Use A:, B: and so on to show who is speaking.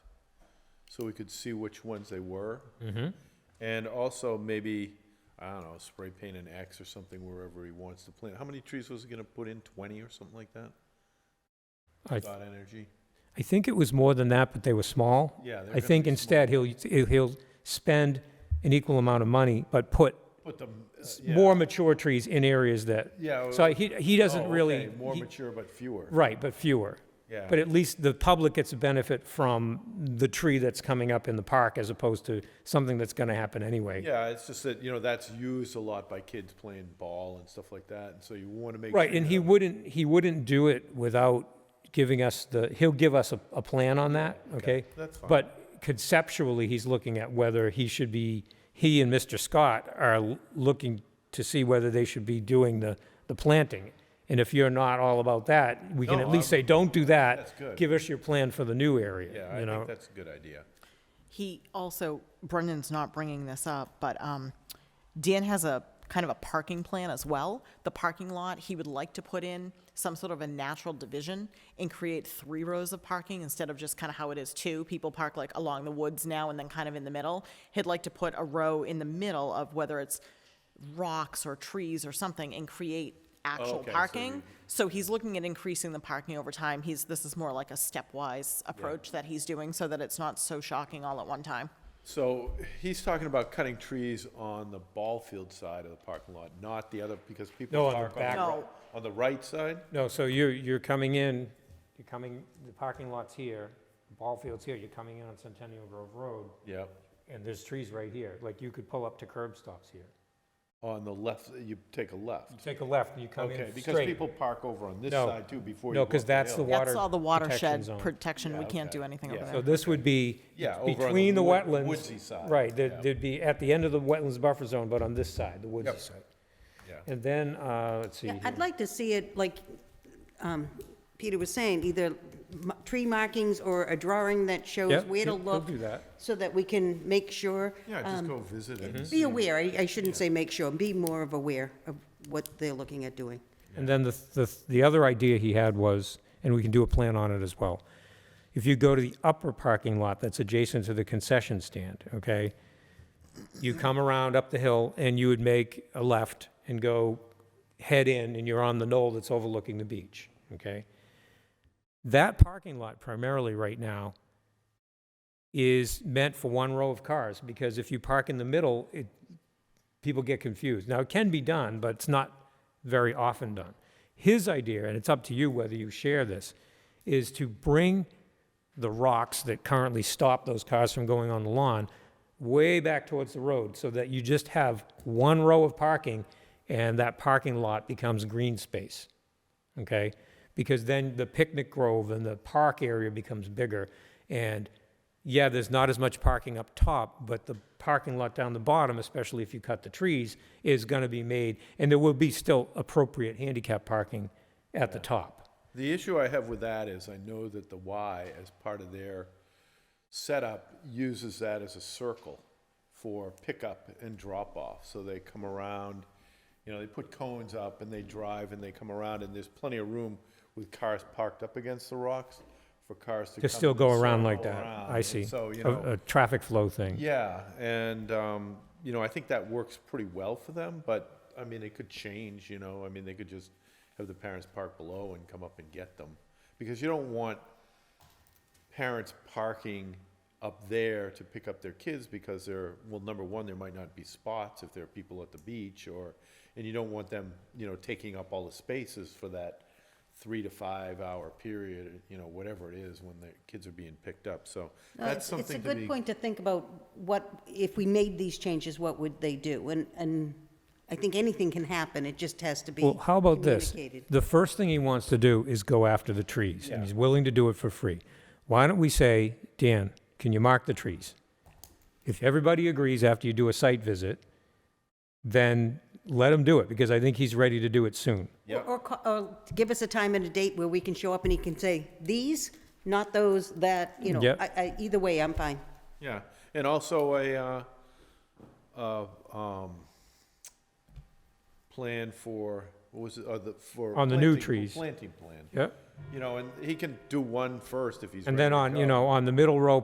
A: so we could see which ones they were.
B: Mm-hmm.
A: And also maybe, I don't know, spray paint an X or something wherever he wants to plant. How many trees was he gonna put in? Twenty or something like that?
B: I,
A: Dot Energy?
B: I think it was more than that, but they were small.
A: Yeah. they're
B: I
A: gonna
B: think
A: be
B: instead he'll, he'll he'll spend an equal amount of money, but put
A: small. Put them, uh,
B: s-
A: yeah.
B: more mature trees in areas that,
A: Yeah.
B: so
A: uh,
B: he, he doesn't
A: oh,
B: really.
A: okay, More
B: he-
A: mature but fewer.
B: Right, but fewer.
A: Yeah.
B: But at least the public gets a benefit from the tree that's coming up in the park as opposed to something that's gonna happen anyway.
A: Yeah, it's just that, you know, that's used a lot by kids playing ball and stuff like that, and so you wanna make.
B: Right,
A: sure
B: and he
A: that-
B: wouldn't, he wouldn't do it without giving us the, he'll give us a, a plan on that, okay?
A: that's fine.
B: But conceptually, he's looking at whether he should be, he and Mr. Scott are l- looking to see whether they should be doing the, the planting. And if you're not all about that, we can
A: No,
B: at least
A: I'm-
B: say, don't do that.
A: That's good.
B: Give us your plan for the new area,
A: Yeah,
B: you
A: I
B: know?
A: think that's a good idea.
C: He also, Brendan's not bringing this up, but um, Dan has a kind of a parking plan as well. The parking lot, he would like to put in some sort of a natural division and create three rows of parking instead of just kind of how it is two. People park like along the woods now and then kind of in the middle. He'd like to put a row in the middle of whether it's rocks or trees or something and create actual
A: Oh, okay, so
C: parking. So he's looking at increasing the parking over time. He's, this is more like a stepwise approach that he's doing so that it's not so shocking all at one time.
A: So he's talking about cutting trees on the ball field side of the parking lot, not the other, because
B: No,
A: people
B: on the
A: park on the
B: back.
A: right,
C: No.
A: on the right side?
B: No, so you're, you're coming in, you're coming, the parking lot's here, the ball field's here, you're coming in on Centennial Grove Road,
A: Yep,
B: and there's trees right here, like you could pull up to curb stops here.
A: on the left, you take a
B: You
A: left.
B: take a left and you come in
A: Okay,
B: straight.
A: because people park over on this
B: No.
A: side too before you
B: No,
A: go up
B: 'cause that's the
A: hill.
B: wa-
C: That's
B: Water
C: all the watershed
B: protection zone.
C: protection, we can't do anything over
A: Yeah.
C: there.
B: So this would be
A: Yeah, over on the
B: between the
A: wood-
B: wetlands.
A: woodsy side,
B: Right,
A: yeah.
B: there'd, there'd be at the end of the wetlands buffer zone, but on this side, the woodsy
A: Yep.
B: side.
A: Yeah.
B: And then, uh, let's see,
D: Yeah,
B: here.
D: I'd like to see it, like um, Peter was saying, either m- tree markings or a drawing that shows
B: Yep,
D: where to
B: yep, we'll
D: look.
B: do that.
D: So that we can make sure,
A: Yeah, just
D: um,
A: go visit it.
B: Mm-hmm.
A: and
D: be
A: see.
D: aware, I I shouldn't say make sure, be more of aware of what they're looking at doing.
B: and then the, the, the other idea he had was, and we can do a plan on it as well. If you go to the upper parking lot that's adjacent to the concession stand, okay? You come around up the hill and you would make a left and go head in and you're on the knoll that's overlooking the beach, okay? That parking lot primarily right now is meant for one row of cars because if you park in the middle, it, people get confused. Now, it can be done, but it's not very often done. His idea, and it's up to you whether you share this, is to bring the rocks that currently stop those cars from going on the lawn way back towards the road so that you just have one row of parking and that parking lot becomes green space okay? Because then the picnic grove and the park area becomes bigger. And yeah, there's not as much parking up top, but the parking lot down the bottom, especially if you cut the trees, is gonna be made, and there will be still appropriate handicap parking at the top.
A: The issue I have with that is I know that the Y, as part of their setup, uses that as a circle for pickup and drop off. So they come around, you know, they put cones up and they drive and they come around and there's plenty of room with cars parked up against the rocks for cars to
B: To
A: come
B: still
A: and
B: go around
A: circle
B: like that,
A: around.
B: I
A: And
B: see.
A: So, you
B: A-
A: know.
B: A traffic flow thing.
A: Yeah, and, um, you know, I think that works pretty well for them, but, I mean, it could change, you know, I mean, they could just have the parents park below and come up and get them. Because you don't want parents parking up there to pick up their kids because they're, well, number one, there might not be spots if there are people at the beach or, and you don't want them, you know, taking up all the spaces for that three to five hour period, you know, whatever it is when the kids are being picked up, so
D: No,
A: that's
D: it's-
A: something to be.
D: It's a good point to think about what, if we made these changes, what would they do? And, and I think anything can happen, it just has to be
B: Well, how about this?
D: communicated.
B: The first thing he wants to do is go after the trees, and he's willing to do it for free. Why don't we say, Dan, can you mark the trees? If everybody agrees after you do a site visit, then let him do it, because I think he's ready to do it soon.
D: Or- Or, ca- or give us a time and a date where we can show up and he can say, these, not those, that, you know,
B: Yep.
D: I, I, either way, I'm fine.
A: Yeah, and also a, uh, uh, um, plan for, what was it, uh, the, for.
B: On the new
A: planting-
B: trees.
A: Planting plan,
B: Yep.
A: you know, and he can do one first if he's.
B: And
A: ready
B: then
A: to
B: on, you
A: go.
B: know, on the middle row